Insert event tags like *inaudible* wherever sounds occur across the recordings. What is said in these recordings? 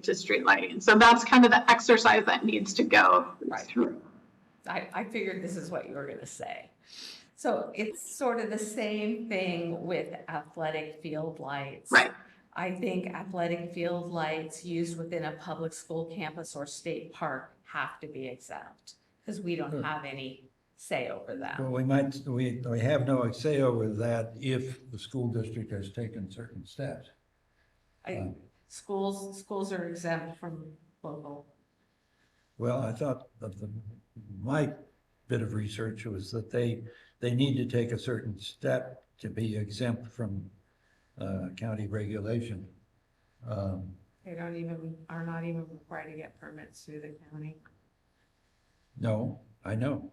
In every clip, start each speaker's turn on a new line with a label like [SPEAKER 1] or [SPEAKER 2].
[SPEAKER 1] to street lighting. So that's kind of the exercise that needs to go
[SPEAKER 2] Right.
[SPEAKER 1] through.
[SPEAKER 2] I, I figured this is what you were gonna say. So it's sort of the same thing with athletic field lights.
[SPEAKER 1] Right.
[SPEAKER 2] I think athletic field lights used within a public school campus or state park have to be exempt, because we don't have any say over that.
[SPEAKER 3] Well, we might, we, we have no say over that if the school district has taken certain steps. Hmm. Um,
[SPEAKER 2] I- Schools, schools are exempt from local.
[SPEAKER 3] Well, I thought that the, my bit of research was that they, they need to take a certain step to be exempt from, uh, county regulation. Um,
[SPEAKER 2] They don't even, are not even required to get permits through the county.
[SPEAKER 3] No, I know.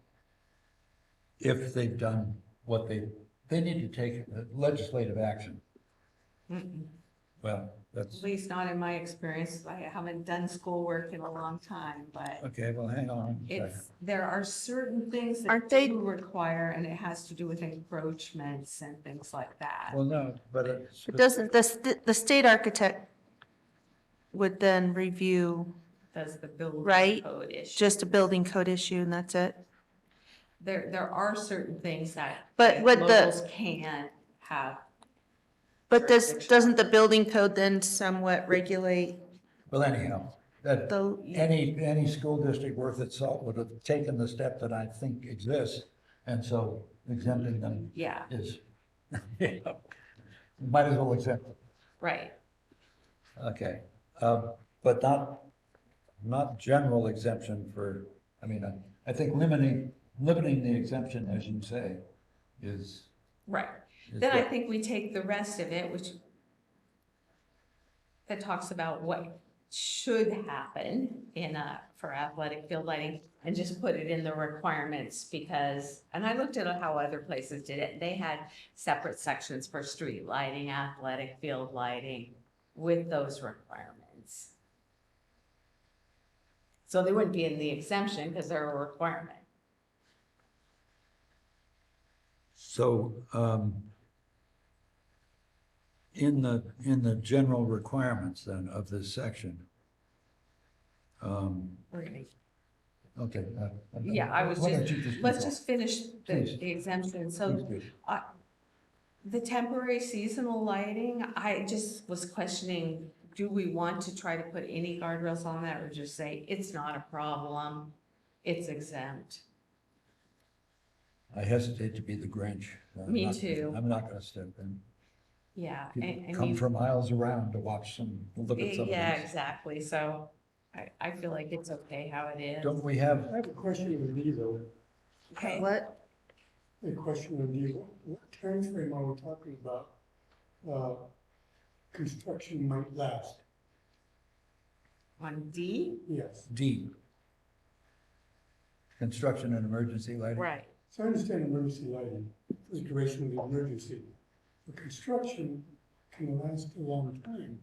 [SPEAKER 3] If they've done what they, they need to take uh, legislative action.
[SPEAKER 2] Mm-mm.
[SPEAKER 3] Well, that's,
[SPEAKER 2] At least not in my experience. I haven't done schoolwork in a long time, but.
[SPEAKER 3] okay, well, hang on. a second.
[SPEAKER 2] It's, there are certain things that
[SPEAKER 1] Aren't they-
[SPEAKER 2] do require, and it has to do with encroachments and things like that.
[SPEAKER 3] Well, no, but it's.
[SPEAKER 4] But doesn't, the, st- the state architect would then review
[SPEAKER 2] Does the building
[SPEAKER 4] Right,
[SPEAKER 2] code issue.
[SPEAKER 4] just a building code issue and that's it?
[SPEAKER 2] There, there are certain things that.
[SPEAKER 4] But
[SPEAKER 2] that
[SPEAKER 4] what the-
[SPEAKER 2] Locals can have.
[SPEAKER 4] But does,
[SPEAKER 2] Jurisdiction.
[SPEAKER 4] doesn't the building code then somewhat regulate
[SPEAKER 3] Well, anyhow, that,
[SPEAKER 4] the,
[SPEAKER 3] any, any school district worth its salt would have taken the step that I think exists, and so exempting them
[SPEAKER 2] Yeah,
[SPEAKER 3] is, *laughs* might as well exempt them.
[SPEAKER 2] right.
[SPEAKER 3] Okay, um, but not, not general exemption for, I mean, I, I think limiting, limiting the exemption, as you say, is.
[SPEAKER 2] Right.
[SPEAKER 3] is
[SPEAKER 2] Then I
[SPEAKER 3] good.
[SPEAKER 2] think we take the rest of it, which that talks about what should happen in a, for athletic field lighting and just put it in the requirements because, and I looked at how other places did it. They had separate sections for street lighting, athletic field lighting with those requirements. So they wouldn't be in the exemption because they're a requirement.
[SPEAKER 3] So, um, in the, in the general requirements then of this section. Um,
[SPEAKER 2] We're gonna
[SPEAKER 3] okay. uh,
[SPEAKER 2] Yeah, I was
[SPEAKER 3] why don't
[SPEAKER 2] just-
[SPEAKER 3] you keep
[SPEAKER 2] Let's
[SPEAKER 3] going?
[SPEAKER 2] just finish the
[SPEAKER 3] Please.
[SPEAKER 2] the exemption.
[SPEAKER 3] Please
[SPEAKER 2] So
[SPEAKER 3] do.
[SPEAKER 2] the temporary seasonal lighting, I just was questioning, do we want to try to put any guardrails on that or just say, it's not a problem? It's exempt.
[SPEAKER 3] I hesitate to be the Grinch. I'm
[SPEAKER 2] Me
[SPEAKER 3] not gonna-
[SPEAKER 2] too.
[SPEAKER 3] I'm not gonna step in.
[SPEAKER 2] Yeah. and-
[SPEAKER 3] People
[SPEAKER 2] and
[SPEAKER 3] come
[SPEAKER 2] you-
[SPEAKER 3] from miles around to watch some, look at some of
[SPEAKER 2] Yeah,
[SPEAKER 3] these.
[SPEAKER 2] exactly. So I, I feel like it's okay how it is.
[SPEAKER 3] Don't we have
[SPEAKER 5] I have a question of you though,
[SPEAKER 2] Okay.
[SPEAKER 4] what?
[SPEAKER 5] a question of you, what timeframe are we talking about? Uh, Construction might last,
[SPEAKER 2] On D?
[SPEAKER 5] yes.
[SPEAKER 3] D. Construction and emergency lighting.
[SPEAKER 2] Right.
[SPEAKER 5] So I understand emergency lighting, the duration of the emergency, but construction can last a long time.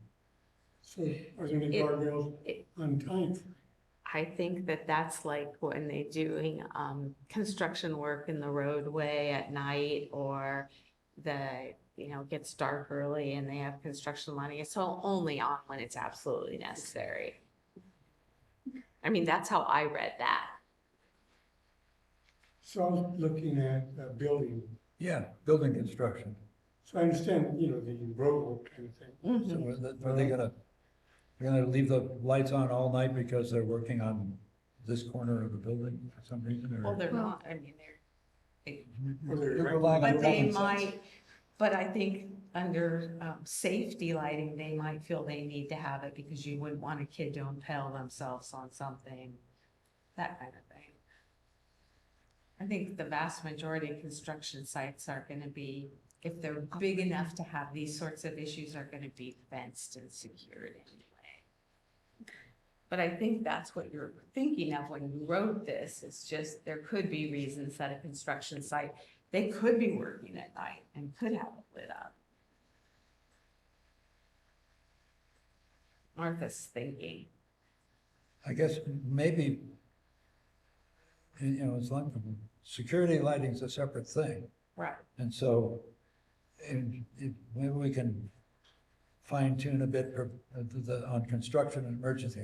[SPEAKER 5] So are there any
[SPEAKER 2] It-
[SPEAKER 5] guardrails
[SPEAKER 2] it-
[SPEAKER 5] on time?
[SPEAKER 2] I think that that's like when they doing, um, construction work in the roadway at night or the, you know, gets dark early and they have construction lighting. It's all only on when it's absolutely necessary. I mean, that's how I read that.
[SPEAKER 5] So I was looking at uh, building,
[SPEAKER 3] Yeah, building construction.
[SPEAKER 5] so I understand, you know, the roadwork kind of thing.
[SPEAKER 3] So
[SPEAKER 2] Mm-hmm.
[SPEAKER 3] are they- are they gonna, they're gonna leave the lights on all night because they're working on this corner of the building for some reason?
[SPEAKER 2] Well,
[SPEAKER 3] or-
[SPEAKER 2] they're not, I mean, they're.
[SPEAKER 5] Or they're-
[SPEAKER 3] They're relying on
[SPEAKER 2] But they
[SPEAKER 3] common sense.
[SPEAKER 2] might, but I think under um, safety lighting, they might feel they need to have it because you wouldn't want a kid to impale themselves on something, that kind of thing. I think the vast majority of construction sites are going to be, if they're big enough to have these sorts of issues, are going to be fenced and secured anyway. But I think that's what you're thinking of when you wrote this, it's just, there could be reasons that a construction site they could be working at night and could have it lit up. Martha's thinking.
[SPEAKER 3] I guess maybe, you know, it's like, security lighting's a separate thing.
[SPEAKER 2] Right.
[SPEAKER 3] And so, and if, maybe we can fine tune a bit per- uh, the, on construction and emergency